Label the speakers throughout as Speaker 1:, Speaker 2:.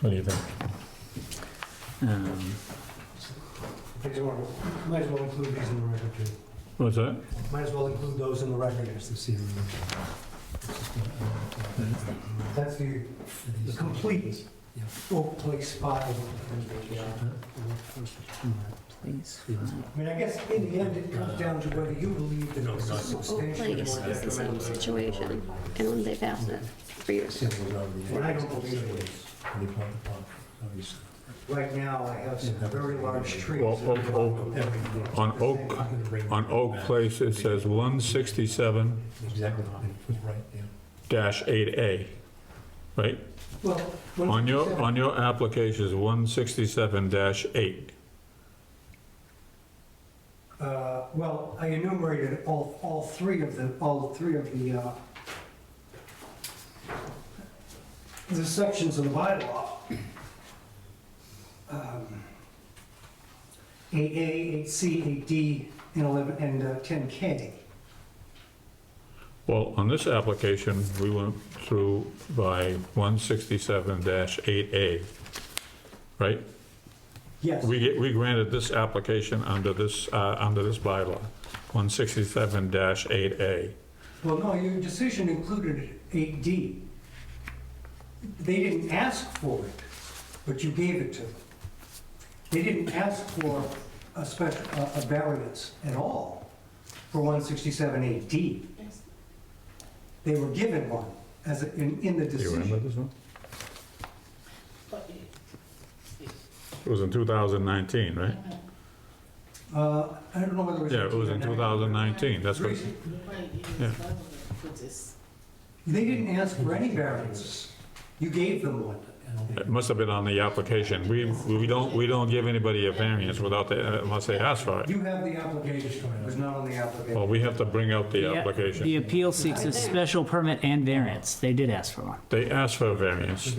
Speaker 1: What do you think?
Speaker 2: Um,
Speaker 3: These are- Might as well include these in the record, too.
Speaker 1: What's that?
Speaker 3: Might as well include those in the record as this evening. That's the, the complete Oak Place file. I
Speaker 2: please.
Speaker 3: mean, I guess in the end, it comes down to whether you believe that it's a
Speaker 4: Oak
Speaker 3: substantially
Speaker 4: Place
Speaker 3: more
Speaker 4: is the same
Speaker 3: detrimental.
Speaker 4: situation, and they've asked it for years.
Speaker 3: And I don't believe it is. Right now, I have some very large trees.
Speaker 1: Well, Oak- Oak- on Oak, on Oak Place, it says 167
Speaker 5: Exactly. Right, yeah.
Speaker 1: dash 8A, right?
Speaker 3: Well, when-
Speaker 1: On your, on your application is 167 dash 8.
Speaker 3: Uh, Well, I enumerated all, all three of the, all three of the, uh, the sections of the bylaw. Um, 8A, 8C, 8D, and 11, and uh, 10K.
Speaker 1: Well, on this application, we went through by 167 dash 8A, right?
Speaker 3: Yes,
Speaker 1: We, get- we granted this application under this, uh, under this bylaw, 167 dash 8A.
Speaker 3: well, no, your decision included 8D. They didn't ask for it, but you gave it to them. They didn't ask for a special, a a variance at all for 167AD. They were given one as, a- in, in the
Speaker 1: Do you remember
Speaker 3: decision.
Speaker 1: this one? It was in 2019, right?
Speaker 3: Uh, I don't know whether it was.
Speaker 1: Yeah, it was in 2019, that's what,
Speaker 3: Reason-
Speaker 1: Yeah.
Speaker 3: They didn't ask for any variances. You gave them one.
Speaker 1: it must have been on the application. We, we don't, we don't give anybody a variance without, they- unless they ask for it.
Speaker 3: You have the application, it was not on the
Speaker 1: Well,
Speaker 3: application.
Speaker 1: we have to bring out the
Speaker 2: Yeah, The
Speaker 1: application.
Speaker 2: appeal seeks a special permit and variance. They did ask for one.
Speaker 1: They asked for a variance.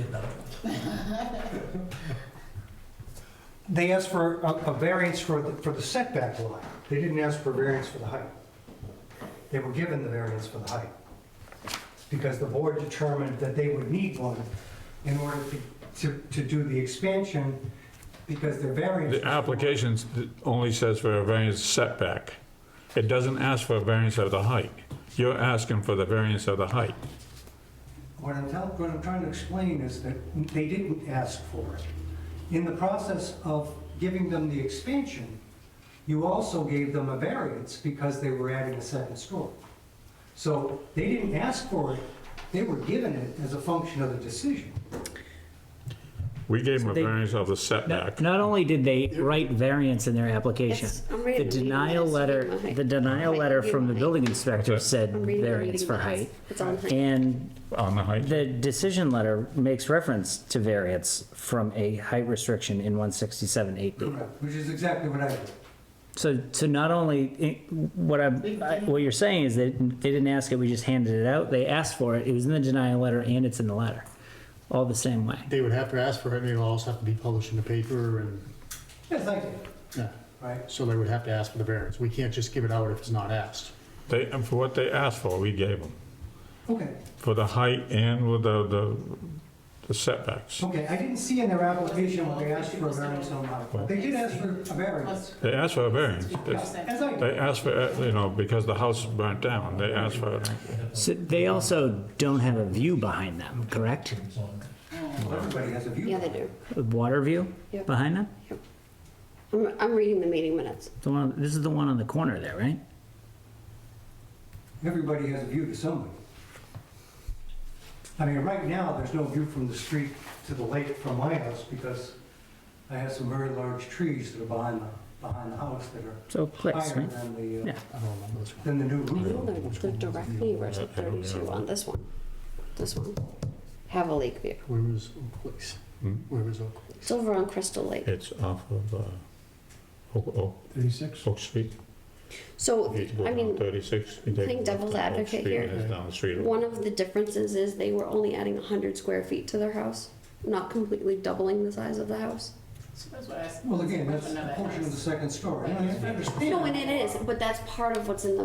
Speaker 3: They asked for a, a variance for, the- for the setback line. They didn't ask for a variance for the height. They were given the variance for the height. Because the board determined that they would need one in order to, to, to do the expansion because their variance.
Speaker 1: The application only says for a variance setback. It doesn't ask for a variance of the height. You're asking for the variance of the height.
Speaker 3: What I'm telling, what I'm trying to explain is that they didn't ask for it. In the process of giving them the expansion, you also gave them a variance because they were adding a second story. So they didn't ask for it, they were given it as a function of the decision.
Speaker 1: We gave them a
Speaker 2: So they-
Speaker 1: variance of the
Speaker 2: Not
Speaker 1: setback.
Speaker 2: not only did they write variance in their application,
Speaker 4: It's- I'm
Speaker 2: the
Speaker 4: reading the meeting
Speaker 2: denial
Speaker 4: minutes.
Speaker 2: letter,
Speaker 4: Okay.
Speaker 2: the denial
Speaker 4: Okay,
Speaker 2: letter
Speaker 4: you
Speaker 2: from the
Speaker 4: might.
Speaker 2: building inspector said
Speaker 4: I'm reading the
Speaker 2: variance
Speaker 4: meeting
Speaker 2: for
Speaker 4: minutes.
Speaker 2: height.
Speaker 4: It's on height.
Speaker 2: And
Speaker 1: On the height?
Speaker 2: the decision letter makes reference to variance from a height restriction in 167 8B.
Speaker 3: Which is exactly what I did.
Speaker 2: So, so not only, what I'm, what you're saying is that they didn't ask it, we just handed it out. They asked for it, it was in the denial letter and it's in the letter, all the same way.
Speaker 5: They would have to ask for it, and it would also have to be published in the paper, and,
Speaker 3: Yes, I did,
Speaker 5: yeah,
Speaker 3: right?
Speaker 5: so they would have to ask for the variance. We can't just give it out if it's not asked.
Speaker 1: They, and for what they asked for, we gave them.
Speaker 3: Okay,
Speaker 1: For the height and with the, the- the setbacks.
Speaker 3: okay, I didn't see in their application when they asked for a variance on my, but they did ask for a variance.
Speaker 1: They asked for a variance. It's-
Speaker 3: As I did.
Speaker 1: They asked for, uh, you know, because the house burnt down, they asked for,
Speaker 2: So they also don't have a view behind them, correct?
Speaker 3: everybody has a view.
Speaker 4: Yeah, they do.
Speaker 2: A water view
Speaker 4: Yep.
Speaker 2: behind them?
Speaker 4: I'm, I'm reading the meeting minutes.
Speaker 2: The one, this is the one on the corner there, right?
Speaker 3: Everybody has a view to somebody. I mean, right now, there's no view from the street to the lake from my house because I have some very large trees that are behind the, behind the house that
Speaker 2: So
Speaker 3: are
Speaker 2: clicks,
Speaker 3: higher
Speaker 2: right?
Speaker 3: than the, uh,
Speaker 2: Yeah.
Speaker 5: I don't remember this one.
Speaker 3: than the new
Speaker 4: No,
Speaker 3: roof.
Speaker 4: they're, they're directly versus 32 on this one. This one. Have a lake view.
Speaker 5: Where was Oak Place?
Speaker 1: Hmm?
Speaker 5: Where was Oak Place?
Speaker 4: It's over on Crystal Lake.
Speaker 1: it's off of, uh, Oak, Oak,
Speaker 5: 36?
Speaker 1: Oak Street.
Speaker 4: So,
Speaker 1: You go
Speaker 4: I
Speaker 1: down
Speaker 4: mean,
Speaker 1: Thirty-six. you take
Speaker 4: playing
Speaker 1: a left
Speaker 4: devil's
Speaker 1: on Oak
Speaker 4: advocate
Speaker 1: Street,
Speaker 4: here.
Speaker 1: and it's down the street.
Speaker 4: one of the differences is they were only adding 100 square feet to their house, not completely doubling the size of the house.
Speaker 3: Well, again, that's a portion of the second story. I understand.
Speaker 4: No, and it is, but that's part of what's in the